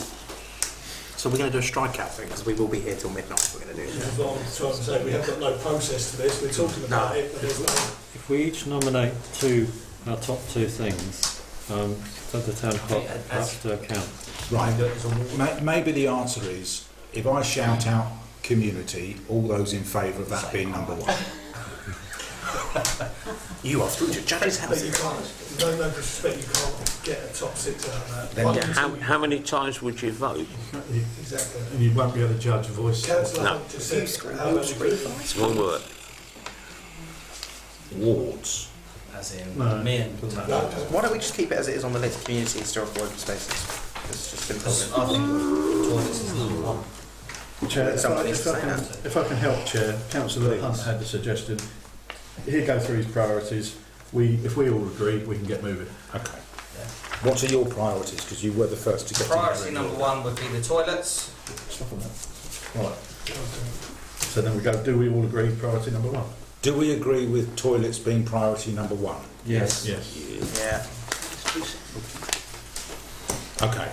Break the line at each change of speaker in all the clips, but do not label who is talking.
So we're going to do a strikeout thing because we will be here till midnight. We're going to do
This
it.
is what I'm trying to say. We have got no process to this. We're talking about it, but there's no.
If we each nominate two, our top two things, um, that the town clerk
Okay, uh,
has to account.
Right. Ma- Maybe the answer is if I shout out community, all those in favour of that being number one.
You are through to Judge's
But you
house.
can't. No, no disrespect. You can't get a top six out of that.
Then-
One,
How,
two,
how many times would you vote?
Exactly.
And you won't be able to judge a voice.
Councillor
No.
Hunt just said. how many-
One word.
Wards.
As in,
No.
me and
No,
Why don't we just keep it as it is on the list? Community historical open spaces. It's just simple.
Because I think toilets is number one.
Chair, if I,
Somebody
if
to
I
say
can,
that.
if I can help, Chair, Councillor Hunt had a suggestion. He'd go through his priorities. We, if we all agree, we can get moving.
Okay. What are your priorities? Because you were the first to get in
Priority
there.
number one would be the toilets.
Stop on that. Right.
So then we go, do we all agree priority number one?
Do we agree with toilets being priority number one?
Yes.
Yes.
Yeah.
Okay.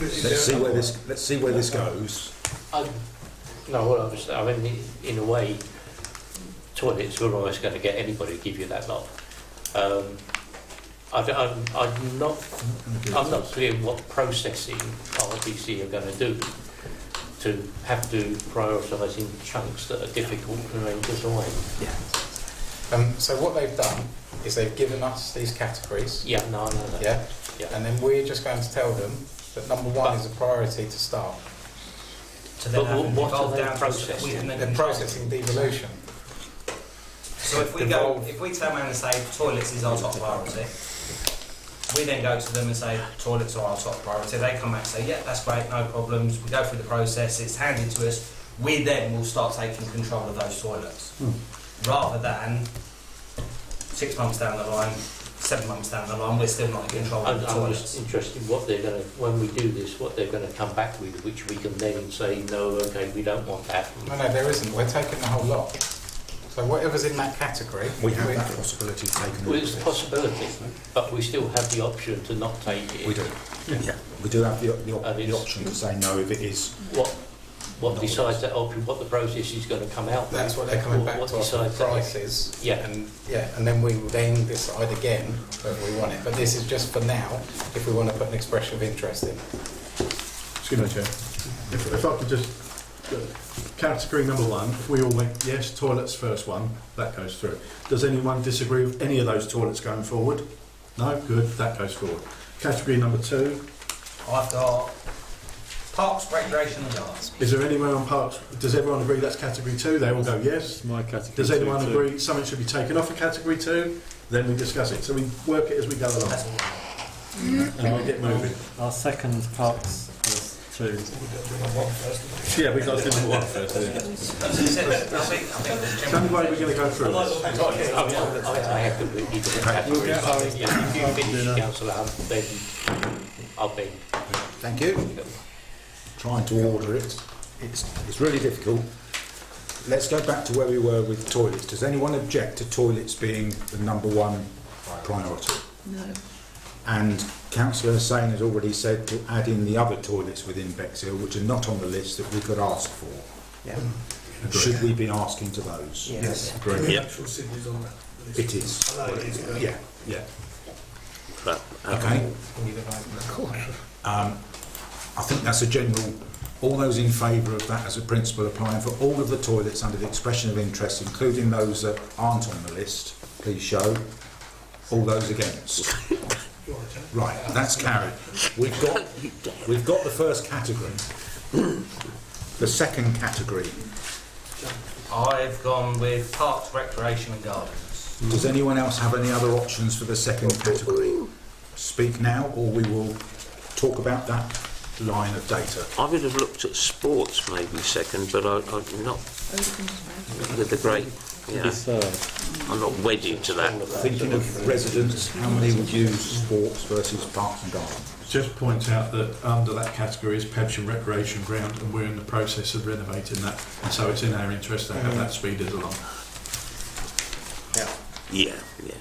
Let's see where this. Let's see where this goes.
I, no, well, obviously, I mean, in a way, toilets were always going to get anybody to give you that lot. Um, I, don't- I'm, I'm not, I'm not clear what processing RBC are going to do to have to prioritise in chunks that are difficult to then design.
Yeah.
Um, so what they've done is they've given us these categories,
Yeah, no, I know that.
yeah,
Yeah.
and then we're just going to tell them that number one is a priority to start.
To then
But
have
what- what
devolved
are they
down to-
processing?
we can then
They're processing devolution.
So if we go, if we turn around and say toilets is our top priority, we then go to them and say toilets are our top priority. They come back and say, yeah, that's great, no problems. We go through the process, it's handed to us. We then will start taking control of those toilets, rather than six months down the line, seven months down the line, we're still not in control of
I'm,
the
I'm just
toilets.
interested what they're going to, when we do this, what they're going to come back with, which we can then say, no, okay, we don't want that.
No, no, there isn't. We're taking the whole lot. So whatever's in that category,
We have
we're-
that possibility of taking.
Well,
all
it's
of
a
it.
possibility, but we still have the option to not take it.
We do. We do have the, the, op-
And
the
it's-
option to say no if it is.
What, what decides that option, what the process is going to come out with?
that's what they're coming
what-
back
what
to us
decides
with
that-
prices.
Yeah.
And yeah, and then we will then decide again whether we want it. But this is just for now, if we want to put an expression of interest in.
Excuse me, Chair. If, if I could just, uh, category number one, if we all went, yes, toilets first one, that goes through. Does anyone disagree with any of those toilets going forward? No, good, that goes forward. Category number two,
I've got parks, recreation, and gardens.
is there anywhere on parks, does everyone agree that's category two? They all go, yes.
It's my category.
Does
two,
anyone
too.
agree something should be taken off a category two? Then we discuss it. So we work it as we go along
That's all.
and we get moving.
Our second parks is two.
Yeah, we got to do number one first. It's
As I said, I think, I think there's
the only
general-
way we're going to go through this.
I mean, I, I I have to read it. Yeah, If you finish, councillor Hunt, then I'll be.
Thank you. Trying to order it. It's, it's really difficult. Let's go back to where we were with toilets. Does anyone object to toilets being the number one priority?
No.
And Councillor Hussain has already said to add in the other toilets within Bexhill, which are not on the list that we could ask for.
Yeah.
Should we be asking to those?
Yes.
The
Yeah.
actual Sydney's on that. list.
It is.
I know it is, but.
Yeah, yeah.
Well,
Okay. Um, I think that's a general, all those in favour of that as a principle applying for all of the toilets under the expression of interest, including those that aren't on the list, please show. All those against. Right, that's carried. We've got, we've got the first category. The second category.
I've gone with parks, recreation, and gardens.
Does anyone else have any other options for the second category? Speak now or we will talk about that line of data.
I would have looked at sports maybe second, but I, I'm not with the great.
The
Yeah,
third.
I'm not wedded to that.
Thinking of residents, how many would use sports versus parks and gardens?
Just point out that under that category is pubs and recreation ground, and we're in the process of renovating that. And so it's in our interest to have that speed along.
Yeah, yeah.